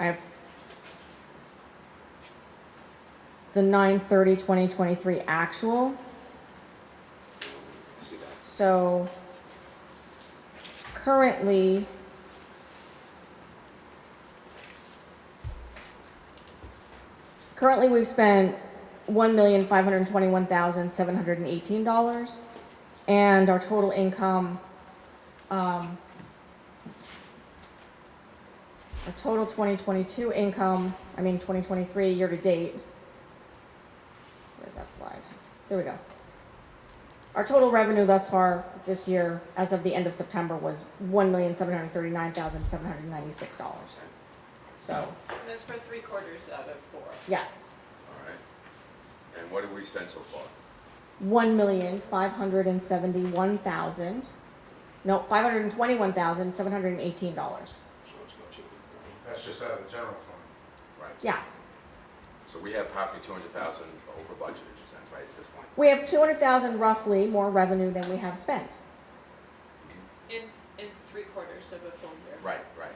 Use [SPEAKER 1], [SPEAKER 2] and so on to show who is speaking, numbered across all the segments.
[SPEAKER 1] I have the 9 2023 actual,
[SPEAKER 2] See that?
[SPEAKER 1] so currently currently we've spent $1,521,718 and our total income um, Our total 2022 income, I mean 2023 year to date. Where's that slide? There we go. Our total revenue thus far this year, as of the end of September, was $1,739,796. So,
[SPEAKER 3] That's for three quarters out of four.
[SPEAKER 1] yes,
[SPEAKER 2] All right. And what have we spent so far?
[SPEAKER 1] $1,571,000, no, $521,718.
[SPEAKER 2] So it's about two.
[SPEAKER 4] That's just out of the general fund.
[SPEAKER 2] Right.
[SPEAKER 1] Yes.
[SPEAKER 2] So we have probably two hundred thousand over budget in a sense, right, at this point?
[SPEAKER 1] We have 200,000 roughly more revenue than we have spent.
[SPEAKER 3] In, in three quarters of a full year.
[SPEAKER 2] Right, right.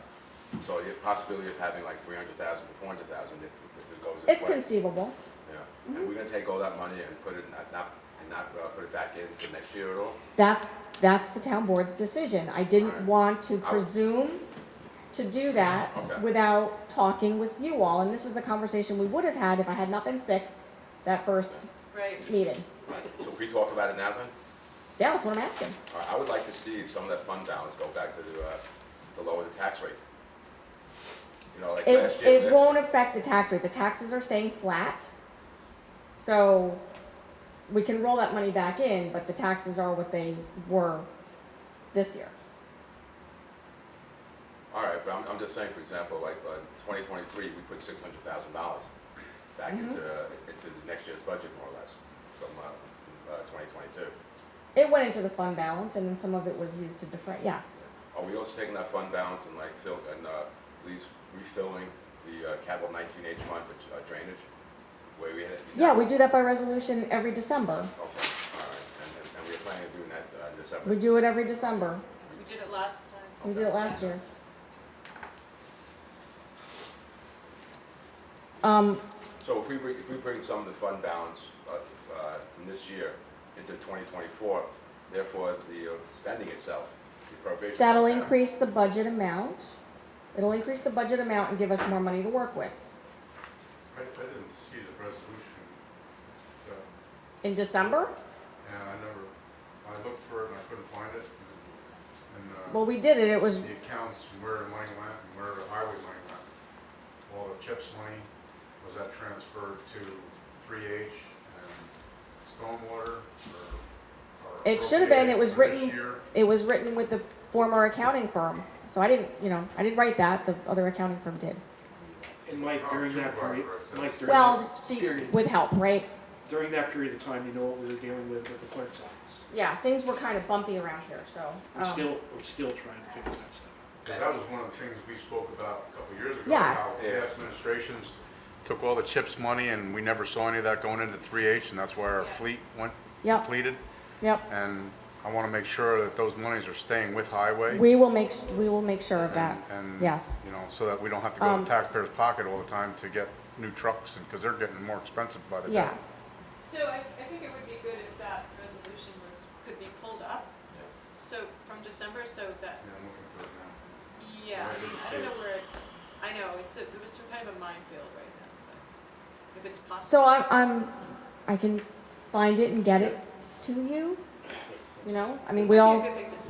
[SPEAKER 2] So the possibility of having like three hundred thousand to four hundred thousand if, if it goes this way.
[SPEAKER 1] It's Mm-hmm. conceivable.
[SPEAKER 2] Yeah. And we're gonna take all that money and put it, not, not, and not, uh, put it back in for next year at all?
[SPEAKER 1] That's, that's the town board's decision. I didn't
[SPEAKER 2] Alright.
[SPEAKER 1] want to
[SPEAKER 2] I-
[SPEAKER 1] presume to do that
[SPEAKER 2] Oh. Okay.
[SPEAKER 1] without talking with you all, and this is the conversation we would have had if I had not been sick that first
[SPEAKER 3] Right,
[SPEAKER 1] meeting.
[SPEAKER 2] Right. So can we talk about it now then?
[SPEAKER 1] Yeah, that's what I'm asking.
[SPEAKER 2] All right, I would like to see some of that fund balance go back to the, uh, to lower the tax rate. You know, like last
[SPEAKER 1] It,
[SPEAKER 2] year.
[SPEAKER 1] it won't affect the tax rate. The taxes are staying flat. So we can roll that money back in, but the taxes are what they were this year.
[SPEAKER 2] All right, but I'm, I'm just saying, for example, like, uh, twenty twenty-three, we put six hundred thousand dollars back
[SPEAKER 1] Mm-hmm.
[SPEAKER 2] into, uh, into the next year's budget, more or less, from, uh, from, uh, twenty twenty-two.
[SPEAKER 1] It went into the fund balance, and then some of it was used to defray, yes.
[SPEAKER 2] Are we also taking that fund balance and like fill, and, uh, at least refilling the, uh, capital nineteen H fund for uh, drainage? Where we had.
[SPEAKER 1] Yeah, we do that by resolution every December.
[SPEAKER 2] Okay, all right, and, and- and we're planning on doing that, uh, in December.
[SPEAKER 1] We do it every December.
[SPEAKER 3] we did it last time.
[SPEAKER 1] We did it last year. Um,
[SPEAKER 2] So if we, bring- if we bring some of the fund balance uh, uh, from this year into 2024, therefore the uh, spending itself, the appropriation.
[SPEAKER 1] that'll increase the budget amount. It'll increase the budget amount and give us more money to work with.
[SPEAKER 4] I, I didn't see the resolution. So,
[SPEAKER 1] In December?
[SPEAKER 4] And I never, I looked for it and I couldn't find it. and- And, uh,
[SPEAKER 1] Well, we did it, it was,
[SPEAKER 4] the accounts, and where the money went and where the highway money went. All the CHIPS money, was that transferred to three H and stormwater or? or
[SPEAKER 1] It should have been. It was written-
[SPEAKER 4] appropriated for this year?
[SPEAKER 1] it was written with the former accounting firm. So I didn't, you know, I didn't write that, the other accounting firm did.
[SPEAKER 5] And Mike, during that period, Mike, during
[SPEAKER 1] Well,
[SPEAKER 5] that
[SPEAKER 1] she,
[SPEAKER 5] period,
[SPEAKER 1] with help, right?
[SPEAKER 5] during that period of time, you know what we were dealing with with the clerk's office.
[SPEAKER 1] Yeah, things were kind of bumpy around here, so.
[SPEAKER 5] We're
[SPEAKER 1] um,
[SPEAKER 5] still, we're still trying to figure that stuff out.
[SPEAKER 4] 'Cause that was one of the things we spoke about a couple years ago.
[SPEAKER 1] Yes.
[SPEAKER 4] How
[SPEAKER 2] Yeah.
[SPEAKER 4] past administrations took all the CHIPS money and we never saw any of that going into 3H and that's why our fleet went
[SPEAKER 1] Yep.
[SPEAKER 4] depleted.
[SPEAKER 1] Yep.
[SPEAKER 4] And I want to make sure that those monies are staying with highway.
[SPEAKER 1] We will make, we will make sure of
[SPEAKER 4] and-
[SPEAKER 1] that.
[SPEAKER 4] and,
[SPEAKER 1] Yes.
[SPEAKER 4] You know, so that we don't have to go
[SPEAKER 1] Um,
[SPEAKER 4] to taxpayers' pocket all the time to get new trucks and, because they're getting more expensive by the day.
[SPEAKER 1] Yeah.
[SPEAKER 3] So I, I think it would be good if that resolution was, could be pulled up, so from December, so that,
[SPEAKER 4] Yeah, I'm looking for it now.
[SPEAKER 3] yeah,
[SPEAKER 4] Right,
[SPEAKER 3] I
[SPEAKER 4] it's-
[SPEAKER 3] don't know where it, I know, it's, a- it was some kind of a minefield right now, but if it's
[SPEAKER 1] So
[SPEAKER 3] possible.
[SPEAKER 1] I'm, I'm, I can find it and get it to you, you know? I mean, we all,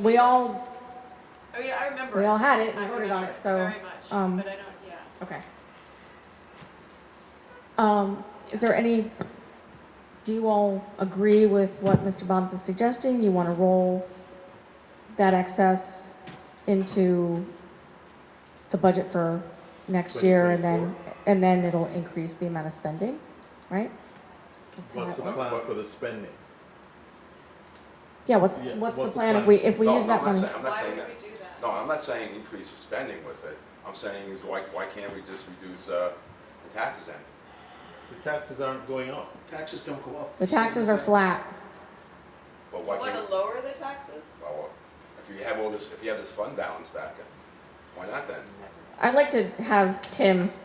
[SPEAKER 1] we all,
[SPEAKER 3] I mean, I remember.
[SPEAKER 1] we
[SPEAKER 3] it.
[SPEAKER 1] all had it
[SPEAKER 3] I
[SPEAKER 1] and voted on
[SPEAKER 3] remember
[SPEAKER 1] it, so,
[SPEAKER 3] Very much, but I
[SPEAKER 1] um,
[SPEAKER 3] don't, yeah.
[SPEAKER 1] okay. Um, is there any, do you all agree with what Mr. Bombs is suggesting? You want to roll that excess into the budget for next year and then, and then it'll increase the amount of spending, right? That's how
[SPEAKER 6] What's
[SPEAKER 1] it
[SPEAKER 6] the plan for the spending?
[SPEAKER 1] Yeah, what's,
[SPEAKER 6] Yeah,
[SPEAKER 1] what's the plan if we, if we
[SPEAKER 2] No,
[SPEAKER 1] use
[SPEAKER 2] no,
[SPEAKER 1] that
[SPEAKER 2] I'm not
[SPEAKER 1] money?
[SPEAKER 2] saying- I'm not
[SPEAKER 3] Why
[SPEAKER 2] saying
[SPEAKER 3] would
[SPEAKER 2] that.
[SPEAKER 3] we do that?
[SPEAKER 2] No, I'm not saying increase the spending with it. I'm saying is why, why can't we just reduce uh, the taxes then?
[SPEAKER 6] The taxes aren't going up.
[SPEAKER 5] Taxes don't go up.
[SPEAKER 1] The taxes are flat.
[SPEAKER 2] Well, why
[SPEAKER 3] Want
[SPEAKER 2] can't,
[SPEAKER 3] to lower the taxes?
[SPEAKER 2] well, well, if you have all this, if you have this fund balance back, then why not then?
[SPEAKER 1] I- I'd like to have Tim